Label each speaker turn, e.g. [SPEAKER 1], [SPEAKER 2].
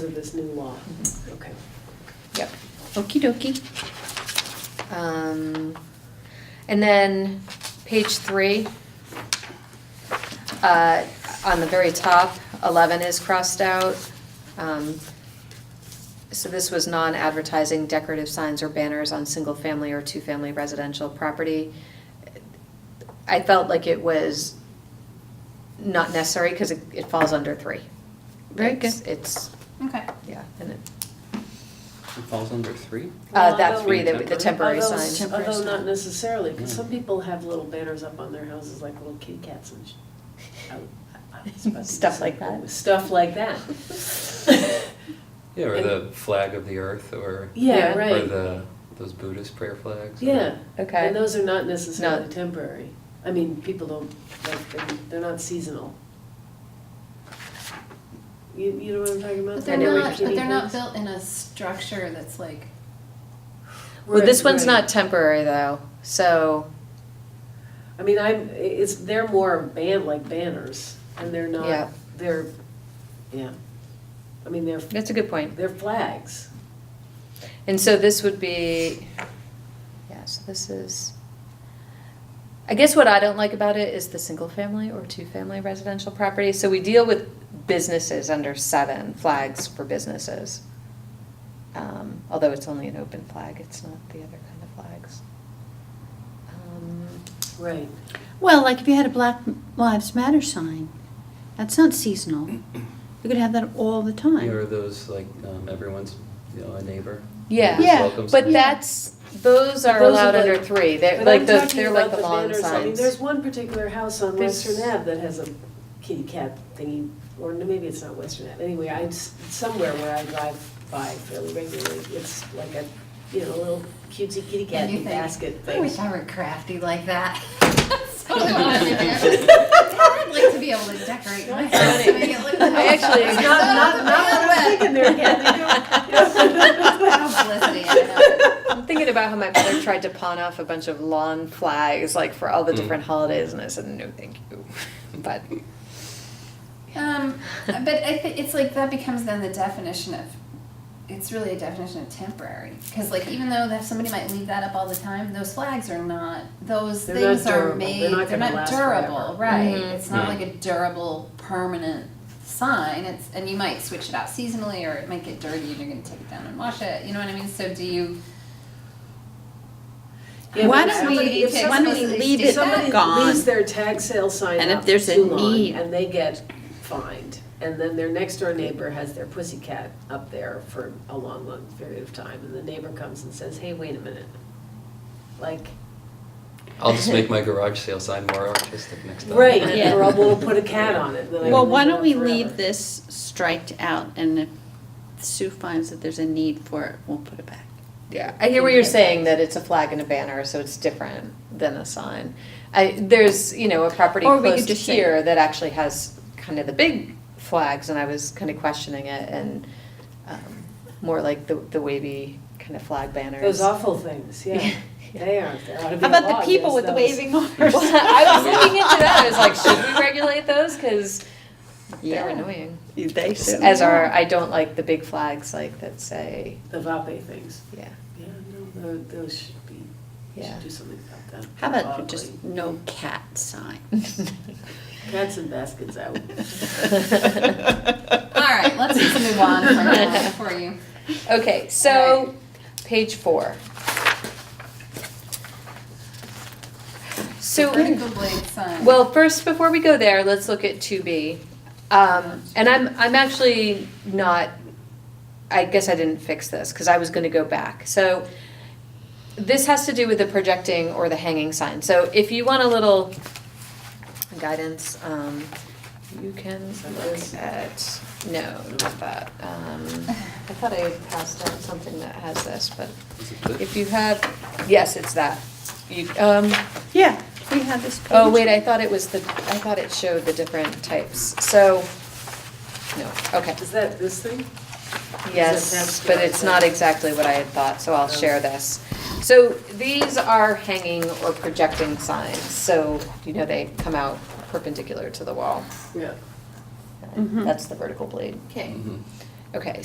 [SPEAKER 1] this new law. Okay.
[SPEAKER 2] Uh, Yep. Okie dokie. Um, and then page three, uh, on the very top, eleven is crossed out. Um, so this was non-advertising decorative signs or banners on single-family or two-family residential property. I felt like it was not necessary because it, it falls under three.
[SPEAKER 3] Very good.
[SPEAKER 2] It's- It's,
[SPEAKER 3] Okay.
[SPEAKER 2] yeah, and it,
[SPEAKER 4] It falls under three?
[SPEAKER 2] uh, that
[SPEAKER 1] Although-
[SPEAKER 2] three, the, the temporary
[SPEAKER 1] Although-
[SPEAKER 2] signs. Mm.
[SPEAKER 3] Temporary
[SPEAKER 1] Although not
[SPEAKER 3] sign.
[SPEAKER 1] necessarily, because
[SPEAKER 4] Yeah.
[SPEAKER 1] some people have little banners up on their houses, like little kitty cats and sh- I- I- I was about to
[SPEAKER 2] Stuff
[SPEAKER 1] say-
[SPEAKER 2] like that.
[SPEAKER 1] Stuff like that.
[SPEAKER 4] Yeah, or
[SPEAKER 1] And-
[SPEAKER 4] the flag of the earth, or
[SPEAKER 1] Yeah,
[SPEAKER 2] Yeah.
[SPEAKER 4] or
[SPEAKER 1] right.
[SPEAKER 4] the those Buddhist prayer flags. or-
[SPEAKER 1] Yeah.
[SPEAKER 2] Okay.
[SPEAKER 1] And those are not necessarily
[SPEAKER 2] Not-
[SPEAKER 1] temporary. I mean, people don't, like, they- they're not seasonal. You, you know what I'm talking about?
[SPEAKER 5] But they're
[SPEAKER 2] And it would
[SPEAKER 5] not, but
[SPEAKER 1] Kitty
[SPEAKER 5] they're not
[SPEAKER 1] things.
[SPEAKER 5] built in a structure that's like,
[SPEAKER 2] Well, this
[SPEAKER 1] Right,
[SPEAKER 2] one's
[SPEAKER 1] right.
[SPEAKER 2] not temporary though, so,
[SPEAKER 1] I mean, I'm, it's, they're more ban, like banners, and they're
[SPEAKER 2] Yeah.
[SPEAKER 1] not, they're, yeah. I mean, they're,
[SPEAKER 2] that's a good point.
[SPEAKER 1] they're flags.
[SPEAKER 2] And so this would be, yeah, so this is, I guess what I don't like about it is the single family or two family residential property. So we deal with businesses under seven, flags for businesses. Um, although it's only an open flag, it's not the other kind of flags. Um,
[SPEAKER 1] Right.
[SPEAKER 3] Well, like if you had a Black Lives Matter sign, that's not seasonal. You could have that all the
[SPEAKER 4] Yeah, or
[SPEAKER 3] time.
[SPEAKER 4] those like um, everyone's, you know, a neighbor.
[SPEAKER 2] Yeah.
[SPEAKER 4] Neighbor's
[SPEAKER 3] Yeah,
[SPEAKER 4] welcome
[SPEAKER 2] But
[SPEAKER 4] sign.
[SPEAKER 3] Yeah.
[SPEAKER 2] that's, those are
[SPEAKER 1] Those are
[SPEAKER 2] allowed under
[SPEAKER 1] like-
[SPEAKER 2] three, they're
[SPEAKER 1] But
[SPEAKER 2] like
[SPEAKER 1] I'm
[SPEAKER 2] the,
[SPEAKER 1] talking
[SPEAKER 2] they're
[SPEAKER 1] about
[SPEAKER 2] like the
[SPEAKER 1] the
[SPEAKER 2] lawn
[SPEAKER 1] banners. I mean,
[SPEAKER 2] signs.
[SPEAKER 1] there's one particular house on
[SPEAKER 2] There's-
[SPEAKER 1] Western Ave that has a kitty cat thingy, or maybe it's not Western Ave, anyway, I, s- somewhere where I drive by fairly regularly, it's like a, you know, little cutesy kitty cat
[SPEAKER 5] And you think,
[SPEAKER 1] basket
[SPEAKER 5] I
[SPEAKER 1] thing.
[SPEAKER 5] wish I were crafty like that. That's totally what I'm into. I'd like to be able to decorate my house, to make it look.
[SPEAKER 2] I actually-
[SPEAKER 1] Not, not, not what I'm thinking there, Kathy.
[SPEAKER 5] Publicity, I don't know.
[SPEAKER 2] I'm thinking about how my mother tried to pawn off a bunch of lawn flags, like for all the
[SPEAKER 4] Mm.
[SPEAKER 2] different holidays, and I said, no, thank you. But,
[SPEAKER 5] Um, but I think it's like that becomes then the definition of, it's really a definition of temporary. Because like even though that somebody might leave that up all the time, those flags are not, those
[SPEAKER 1] They're not
[SPEAKER 5] things
[SPEAKER 1] durable.
[SPEAKER 5] are
[SPEAKER 1] They're
[SPEAKER 5] made,
[SPEAKER 1] not gonna
[SPEAKER 5] they're not
[SPEAKER 1] last forever.
[SPEAKER 5] durable, right?
[SPEAKER 2] Mhm.
[SPEAKER 5] It's not
[SPEAKER 4] Mm.
[SPEAKER 5] like a durable, permanent sign. It's, and you might switch it out seasonally or it might get dirty and you're gonna take it down and wash it, you know what I mean? So do you,
[SPEAKER 1] Yeah,
[SPEAKER 3] Why
[SPEAKER 1] but
[SPEAKER 3] don't
[SPEAKER 1] somebody-
[SPEAKER 5] we-
[SPEAKER 1] if
[SPEAKER 5] why
[SPEAKER 1] somebody-
[SPEAKER 5] don't we leave
[SPEAKER 1] if
[SPEAKER 5] it
[SPEAKER 3] gone?
[SPEAKER 1] Somebody leaves their tag sale sign
[SPEAKER 3] And if
[SPEAKER 1] up
[SPEAKER 3] there's a
[SPEAKER 1] too long
[SPEAKER 3] need.
[SPEAKER 1] and they get fined, and then their next door neighbor has their pussy cat up there for a long, long period of time, and the neighbor comes and says, hey, wait a minute. Like,
[SPEAKER 4] I'll just make my garage sale sign more artistic next time.
[SPEAKER 1] right,
[SPEAKER 3] Yeah.
[SPEAKER 1] or we'll put a cat on it, and then I
[SPEAKER 3] Well,
[SPEAKER 1] can
[SPEAKER 3] why
[SPEAKER 1] leave it
[SPEAKER 3] don't
[SPEAKER 1] up
[SPEAKER 3] we
[SPEAKER 1] forever.
[SPEAKER 3] leave this striked out and if Sue finds that there's a need for it, we'll put it back.
[SPEAKER 2] yeah, I hear what you're saying, that it's a flag and a banner, so it's different than a sign. I, there's, you know, a property
[SPEAKER 3] Or we could
[SPEAKER 2] close
[SPEAKER 3] just say-
[SPEAKER 2] here that actually has kind of the big flags, and I was kind of questioning it, and, um, more like the, the wavy kind of flag banners.
[SPEAKER 1] Those awful things, yeah. They are, there ought to be
[SPEAKER 3] How
[SPEAKER 1] a
[SPEAKER 3] about
[SPEAKER 1] law
[SPEAKER 3] the
[SPEAKER 1] against
[SPEAKER 3] people with the
[SPEAKER 1] those.
[SPEAKER 3] waving
[SPEAKER 2] Well,
[SPEAKER 3] arms?
[SPEAKER 2] I was looking into that, I was like, should we regulate those? Because they're
[SPEAKER 3] Yeah.
[SPEAKER 2] annoying.
[SPEAKER 3] They should.
[SPEAKER 2] As are, I don't like the big flags like that say,
[SPEAKER 1] The vape things.
[SPEAKER 2] yeah,
[SPEAKER 1] Yeah, no, tho- those should be, we
[SPEAKER 2] yeah.
[SPEAKER 1] should do something about that.
[SPEAKER 3] How about for just
[SPEAKER 1] Ugly.
[SPEAKER 3] no cat sign?
[SPEAKER 1] Cats and baskets out.
[SPEAKER 5] all right, let's just move on for now for you.
[SPEAKER 2] Okay, so, page four. So.
[SPEAKER 5] Vertical blade sign.
[SPEAKER 2] Well, first, before we go there, let's look at two B. Um, and I'm, I'm actually not, I guess I didn't fix this, cause I was gonna go back, so. This has to do with the projecting or the hanging sign, so if you want a little guidance, um, you can look at, no, not that. Um, I thought I had passed out something that has this, but
[SPEAKER 4] Is it good?
[SPEAKER 2] if you have, yes, it's that. You, um,
[SPEAKER 3] Yeah, we have this page.
[SPEAKER 2] Oh, wait, I thought it was the, I thought it showed the different types, so, no, okay.
[SPEAKER 1] Is that this thing?
[SPEAKER 2] Yes, but it's not exactly what I had thought, so
[SPEAKER 1] Oh.
[SPEAKER 2] I'll share this. So these are hanging or projecting signs, so, you know, they come out perpendicular to the wall.
[SPEAKER 1] Yeah.
[SPEAKER 3] Mhm.
[SPEAKER 2] That's the vertical blade.
[SPEAKER 5] Okay.
[SPEAKER 4] Mhm.
[SPEAKER 2] Okay,